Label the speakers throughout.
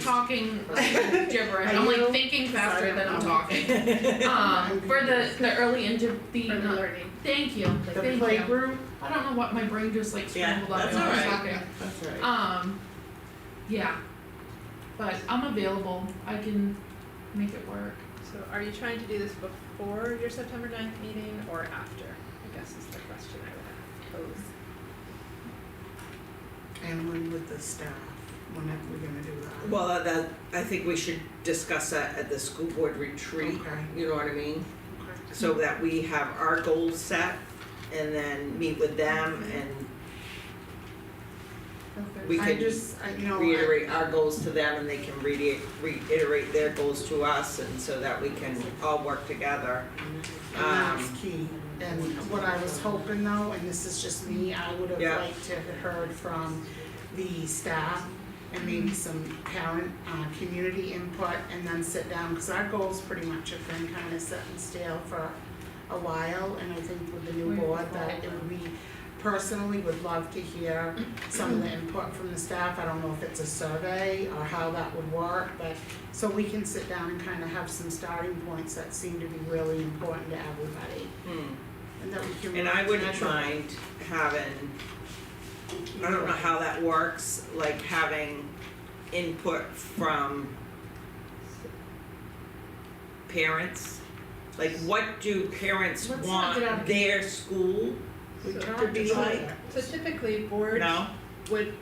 Speaker 1: talking like, gibberish. I'm like
Speaker 2: Are you-
Speaker 1: thinking faster than I'm talking. Um,
Speaker 2: Um,
Speaker 1: for the the early into the,
Speaker 2: For the learning.
Speaker 1: thank you,
Speaker 2: The
Speaker 1: thank you.
Speaker 2: playgroup?
Speaker 1: I don't know what my brain just like
Speaker 2: Yeah,
Speaker 1: scrambled up
Speaker 2: that's
Speaker 1: when I was
Speaker 2: alright.
Speaker 1: talking.
Speaker 2: That's right.
Speaker 1: Um, yeah. But I'm available. I can make it work.
Speaker 3: So are you trying to do this before your September ninth meeting or after? I guess is the question I would pose.
Speaker 4: And when with the staff, when are we gonna do that?
Speaker 5: Well, that- that, I think we should discuss that at the school board retreat,
Speaker 4: Okay.
Speaker 5: you know what I mean?
Speaker 4: Okay.
Speaker 5: So that we have our goals set and then meet with them and we
Speaker 4: I
Speaker 5: can
Speaker 4: just, I, you know, I,
Speaker 5: reiterate our goals to them and they can reiterate, reiterate their goals to us and so that we can all work together.
Speaker 4: and
Speaker 5: Um,
Speaker 4: that's key. And what I was hoping though, and this is just me, I would have
Speaker 5: Yeah.
Speaker 4: liked to have heard from the staff and maybe some parent, uh, community input and then sit down, cause our goals pretty much have been kinda set in stale for a while, and I think with the new
Speaker 1: We've
Speaker 4: board that it
Speaker 1: evolved.
Speaker 4: would be, personally would love to hear some of the input from the staff, I don't know if it's a survey or how that would work, but so we can sit down and kind of have some starting points that seem to be really important to everybody,
Speaker 5: Hmm.
Speaker 4: and that we can really
Speaker 5: And I wouldn't
Speaker 4: connect with.
Speaker 5: mind having, I don't know how that works, like having input from parents. Like what do parents
Speaker 1: Let's not get out
Speaker 5: want
Speaker 1: of-
Speaker 5: their school,
Speaker 4: We
Speaker 3: So-
Speaker 4: talked
Speaker 5: be
Speaker 4: about
Speaker 5: like-
Speaker 4: that.
Speaker 3: So typically, boards
Speaker 5: no?
Speaker 3: would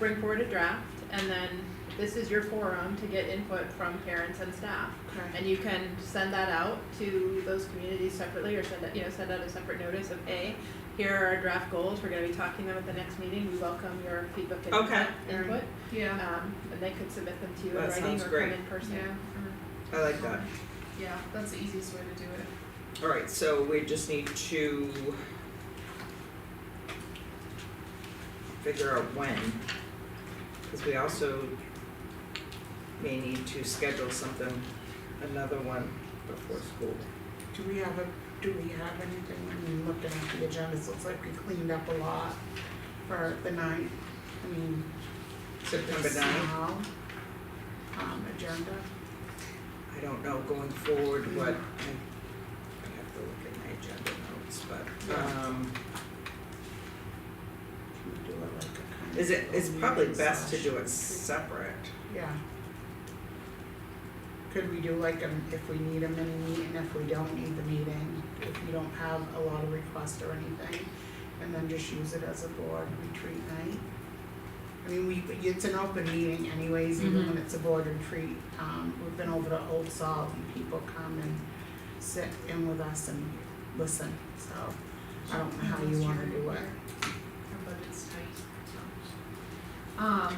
Speaker 3: bring forward a draft and then this is your forum to get input from parents and staff.
Speaker 4: Okay.
Speaker 3: And you can send that out to those communities separately or send, out- you know, send out a separate notice of, hey, here are our draft goals, we're gonna be talking them at the next meeting, we welcome your feedback and
Speaker 5: Okay.
Speaker 3: input.
Speaker 1: Yeah.
Speaker 3: Um, and they could submit them to you in
Speaker 5: That
Speaker 3: writing
Speaker 5: sounds
Speaker 3: or come
Speaker 5: great.
Speaker 3: in person.
Speaker 1: Yeah.
Speaker 5: I like that.
Speaker 1: Yeah. That's the easiest way to do it.
Speaker 5: Alright, so we just need to figure out when, cause we also may need to schedule something, another one before school.
Speaker 4: Do we have a, do we have anything, I mean, looking at the agenda, it looks like we cleaned up a lot for the night, I mean,
Speaker 5: September
Speaker 4: the
Speaker 5: ninth,
Speaker 4: small, um, agenda.
Speaker 5: I don't know going forward what, I, I have to look at my agenda notes, but, um,
Speaker 4: Can we do it like a kind of
Speaker 5: is it, it's
Speaker 4: little
Speaker 5: probably
Speaker 4: meeting
Speaker 5: best to
Speaker 4: slash
Speaker 5: do it
Speaker 4: retreat?
Speaker 5: separate.
Speaker 4: Yeah. Could we do like um if we need a mini meeting, if we don't need the meeting, if we don't have a lot of requests or anything, and then just use it as a board retreat night? I mean, we, it's an open meeting anyways, even when it's a board retreat, um, we've been over to Old Salt and people come and sit in with us and listen, so I don't know how you wanna do it.
Speaker 1: Our budget's tight. so. Um.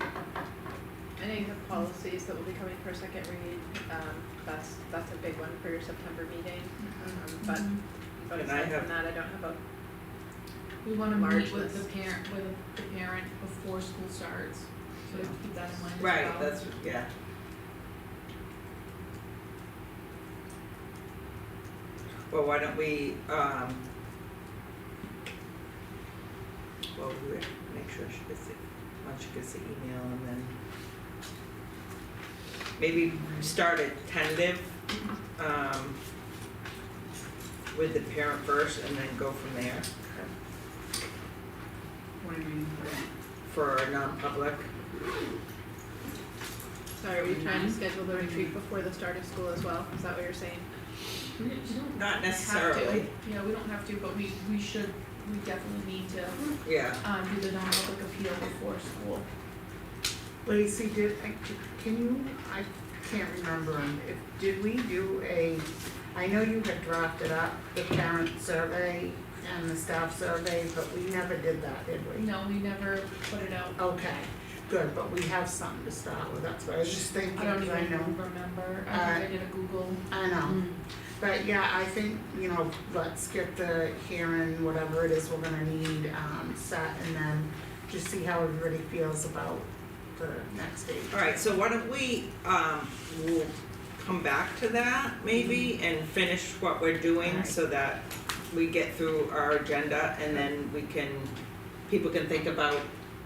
Speaker 3: I know you have policies that will be coming for a second read, um, that's, that's a big one for your September meeting, um,
Speaker 1: Mm-hmm.
Speaker 3: but, but
Speaker 5: Mm-hmm. And I
Speaker 3: aside
Speaker 5: have-
Speaker 3: from that, I don't have a,
Speaker 1: We wanna
Speaker 3: March
Speaker 1: meet with
Speaker 3: list.
Speaker 1: the parent, with the parent before school starts, so we have to keep that in mind as well.
Speaker 5: Right, that's, yeah, well, why don't we, um, well, we would make sure she gets the, once she gets the email and then maybe start a tentative, um, with the parent first and then go from there
Speaker 4: What do you mean?
Speaker 5: for non-public.
Speaker 3: sorry, are you trying
Speaker 5: Mm-hmm.
Speaker 3: to schedule the retreat before the start of school as well, is that what you're saying?
Speaker 1: We don't- we don't
Speaker 5: Not
Speaker 1: have to.
Speaker 5: necessarily.
Speaker 1: Yeah, we don't have to, but we, we should, we definitely need to,
Speaker 5: Yeah,
Speaker 1: uh do the non-public appeal before school.
Speaker 4: Lacey, did, I, can you, I can't remember, um, if, did we do a, I know you had drafted up the parent survey and the staff survey, but we never did that, did we?
Speaker 1: No, we never put it out.
Speaker 4: Okay, good, but we have something to start with, that's what I was just thinking,
Speaker 1: I don't
Speaker 4: 'cause I
Speaker 1: even Mm.
Speaker 4: know, Uh,
Speaker 1: remember. I think I did a Google.
Speaker 4: I know, but yeah, I think, you know, let's get the hearing, whatever it is we're gonna need, um, set, and then just see how everybody feels about the next date.
Speaker 5: Alright, so why don't we, um, we'll come back to that maybe and finish what we're doing
Speaker 4: Alright.
Speaker 5: so that we get through our agenda and then we can, people can think about